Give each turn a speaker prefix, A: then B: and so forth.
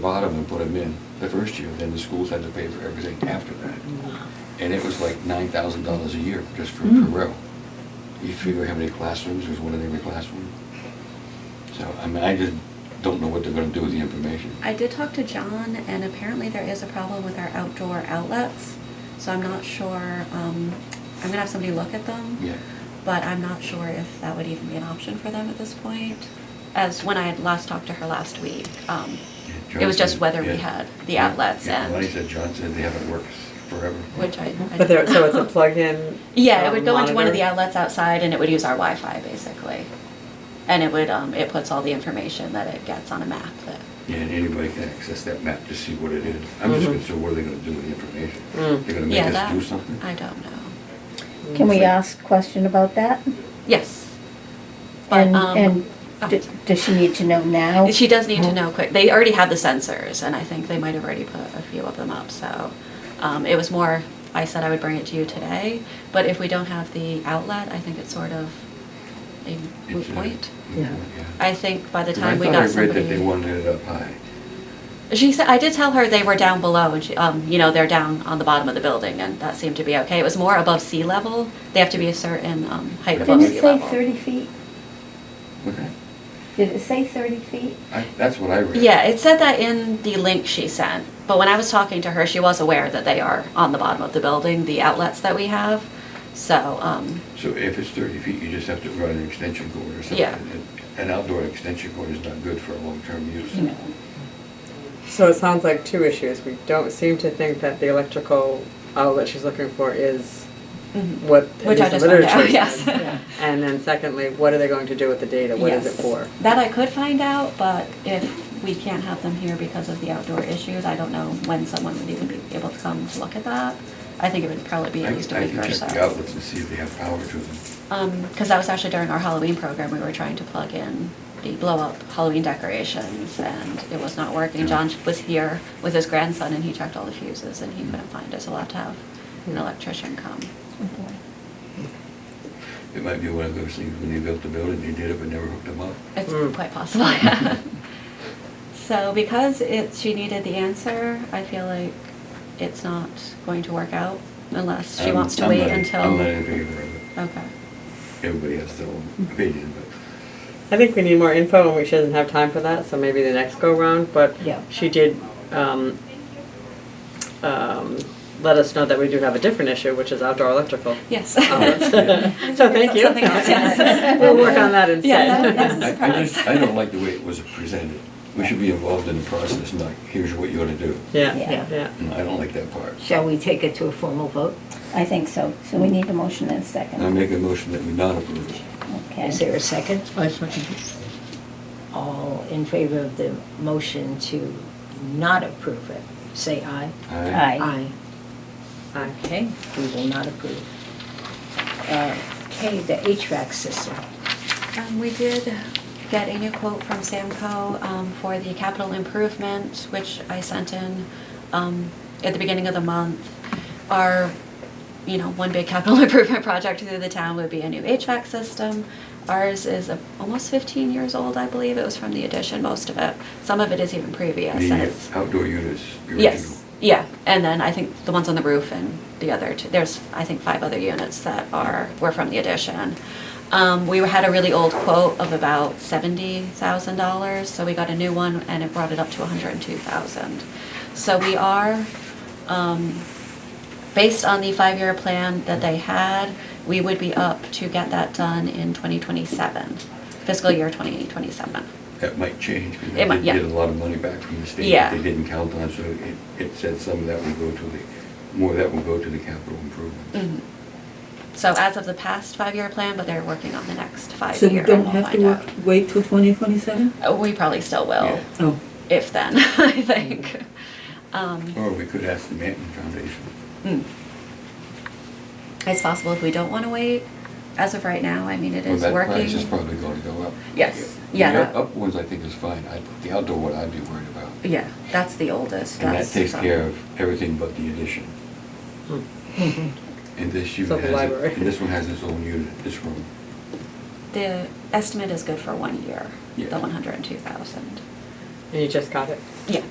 A: bottom and put them in the first year, then the schools had to pay for everything after that. And it was like nine thousand dollars a year just for
B: Hmm.
C: Mm.
A: Carrell. You figure how many classrooms, there's one in every classroom. So, I mean, I just don't know what they're gonna do with the information.
B: I did talk to John, and apparently there is a problem with our outdoor outlets. So I'm not sure. Um, I'm gonna have somebody look at them,
A: Yeah,
B: but I'm not sure if that would even be an option for them at this point. As when I had last talked to her last week, um,
A: Yeah,
B: it was
A: John
B: just
A: said-
B: whether we
A: yeah.
B: had the
A: Yeah,
B: outlets
A: yeah,
B: and
A: Lonnie said, John said they haven't worked forever.
B: which I. I
C: But there, so it's a plug-in.
B: Yeah, it
C: um,
B: would go into one of the
C: monitor?
B: outlets outside, and it would use our Wi-Fi basically, and it would um, it puts all the information that it gets on a map that
A: Yeah, And anybody can access that map to see what it is. I'm just
C: Mhm.
A: concerned, what are they gonna do with the information?
C: Mm.
A: They're gonna make
B: Mm-hmm. Yeah,
A: us
B: that,
A: do something?
B: I don't know.
D: Can we ask question about that?
B: Yes. But,
D: And,
B: um,
D: and
B: oh,
D: d- does she need to know now?
B: She does need to know quick, they already have the sensors, and I think they might have already put a few of them up, so. Um, it was more, I said I would bring it to you today, but if we don't have the outlet, I think it's sort of a moot
A: It's, uh,
B: point.
C: Yeah.
B: I think by the
A: Because
B: time we got
A: I thought I read that they
B: somebody.
A: wanted it up high.
B: She said, I did tell her they were down below, and she, um, you know, they're down on the bottom of the building, and that seemed to be okay. It was more above sea level, they have to be a certain, um, height above
D: Didn't
B: sea
D: it say
B: level.
D: thirty feet?
A: Okay.
D: Did it say thirty feet?
A: I, that's what I read.
B: Yeah, it said that in the link she sent, but when I was talking to her, she was aware that they are on the bottom of the building, the outlets that we have. So, um,
A: So if it's thirty feet, you just have to run an extension cord or something.
B: Yeah.
A: An outdoor extension cord is not good for a long-term use.
B: you know,
C: So it sounds like two issues. We don't seem to think that the electrical outlet she's looking for is
B: mhm.
C: what at
B: which I
C: least
B: just
C: the
B: found
C: literature
B: out,
C: says.
B: yes.
C: And then secondly, what are they going to do with the data? What is
B: Yes.
C: it for?
B: That I could find out, but if we can't have them here because of the outdoor issues, I don't know when someone would even be able to come to look at that. I think it would probably be
A: I
B: at
A: I
B: least a week
A: can
B: or
A: check
B: so.
A: the outlets and see if they have power to them.
B: because Um, that was actually during our Halloween program. We were trying to plug in the blow up Halloween decorations, and it was not working. John was here with his grandson, and he checked all the fuses, and he couldn't find us. Allowed to have
A: Hmm.
B: an electrician come.
A: It might be one of those things, when they built the building, they did it but never hooked them up.
B: It's
C: Mm.
B: quite possible. Yeah. so because it, she needed the answer, I feel like it's not going to work out unless she
A: I'm-
B: wants to
A: I'm
B: wait
A: not in-
B: until.
A: I'm not in favor of it.
B: okay.
A: Everybody has their own
B: Mm-hmm.
A: opinion, but
C: I think we need more info and we shouldn't have time for that, so maybe the next go round, but
D: Yeah.
C: she did, um, um, let us know that we do have a different issue, which is outdoor electrical.
B: Yes.
A: Oh,
C: outlets. So thank you.
B: Something else, yes.
C: We'll work on that
B: Yeah, that-
C: instead.
B: that's-
A: I, I just, I don't like the way it was presented. We should be involved in the process, not here's what you ought to do.
C: Yeah,
D: Yeah.
C: yeah.
A: And I don't like that part.
E: Shall we take it to a formal vote?
D: I think so, so we need a motion and a
A: And I
D: second.
A: make a motion that we not approve it.
D: Okay.
E: Is there a second?
F: I second it.
E: All in favor of the motion to not approve it, say aye.
A: Aye.
D: Aye.
C: Aye.
E: Okay, we will not approve. Uh, Okay, the HVAC system.
B: Um, we did get a new quote from Samco, um, for the capital improvement, which I sent in, um, at the beginning of the month. Our, you know, one big capital improvement project through the town would be a new HVAC system. Ours is a- almost fifteen years old, I believe. It was from the addition, most of it. Some of it is even previous. and
A: The
B: it's-
A: outdoor units, the original.
B: Yes, yeah, and then I think the ones on the roof and the other two, there's, I think, five other units that are, were from the addition. Um, we had a really old quote of about seventy thousand dollars, so we got a new one and it brought it up to a hundred and two thousand. So we are, um, based on the five-year plan that they had, we would be up to get that done in twenty twenty-seven, fiscal year twenty twenty-seven.
A: That might change, because
B: It might-
A: they
B: yeah.
A: get a lot of money back from the state
B: Yeah.
A: that they didn't count on, so it, it said some of that will go to the, more of that will go to the capital improvements.
B: Mhm. So as of the past five-year plan, but they're working on the next
F: So
B: five-year.
F: we
B: and
F: don't
B: we'll
F: have to
B: find
F: work,
B: out.
F: wait till twenty twenty-seven?
B: Uh, We probably still will,
A: Yeah.
F: Oh,
B: if then, I think. Um,
A: Or we could ask the Manton Foundation.
B: mm. It's possible if we don't want to wait. As of right now, I mean, it
A: Well,
B: is
A: That price is
B: working.
A: probably gonna go up.
B: Yes. Yeah,
A: The
B: that-
A: up ones I think is fine, I, the outdoor one I'd be worried about.
B: Yeah, that's the oldest.
A: And that
B: that's
A: takes
B: from-
A: care of everything but the addition.
C: Hmm.
A: And this
C: So
A: unit
C: the
A: has, it-
C: library.
A: and this one has its own unit, this room.
B: The estimate is good for one year,
A: Yeah.
B: the one hundred and two thousand.
C: And you just got it?
B: Yeah,